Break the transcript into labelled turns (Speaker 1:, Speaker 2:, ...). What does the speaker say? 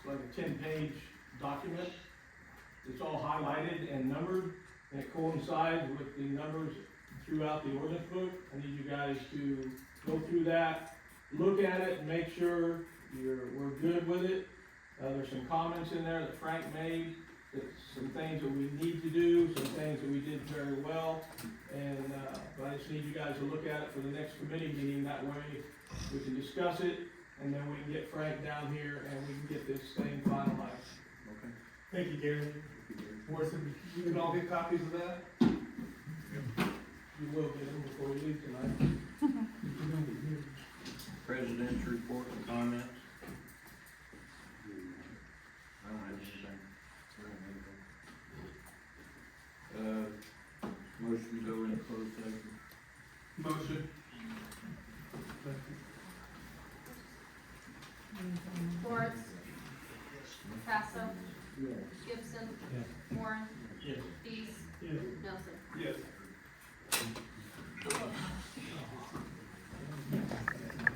Speaker 1: ten-page document. It's all highlighted and numbered, and it coincides with the numbers throughout the ordinance book. I need you guys to go through that, look at it, and make sure you're, we're good with it. Uh, there's some comments in there that Frank made, that some things that we need to do, some things that we did very well. And, uh, but I just need you guys to look at it for the next committee meeting, that way we can discuss it, and then we can get Frank down here and we can get this thing finalized.
Speaker 2: Okay.
Speaker 3: Thank you, Gary. Morrison, you can all get copies of that?
Speaker 1: You will get them before we leave tonight.
Speaker 2: President's report and comments? I don't have anything. Uh, motion to go into closed session.
Speaker 3: Motion.
Speaker 4: Lawrence. Passo. Gibson. Warren.
Speaker 1: Yes.
Speaker 4: Dees.
Speaker 3: Yes.
Speaker 4: Nelson.
Speaker 3: Yes.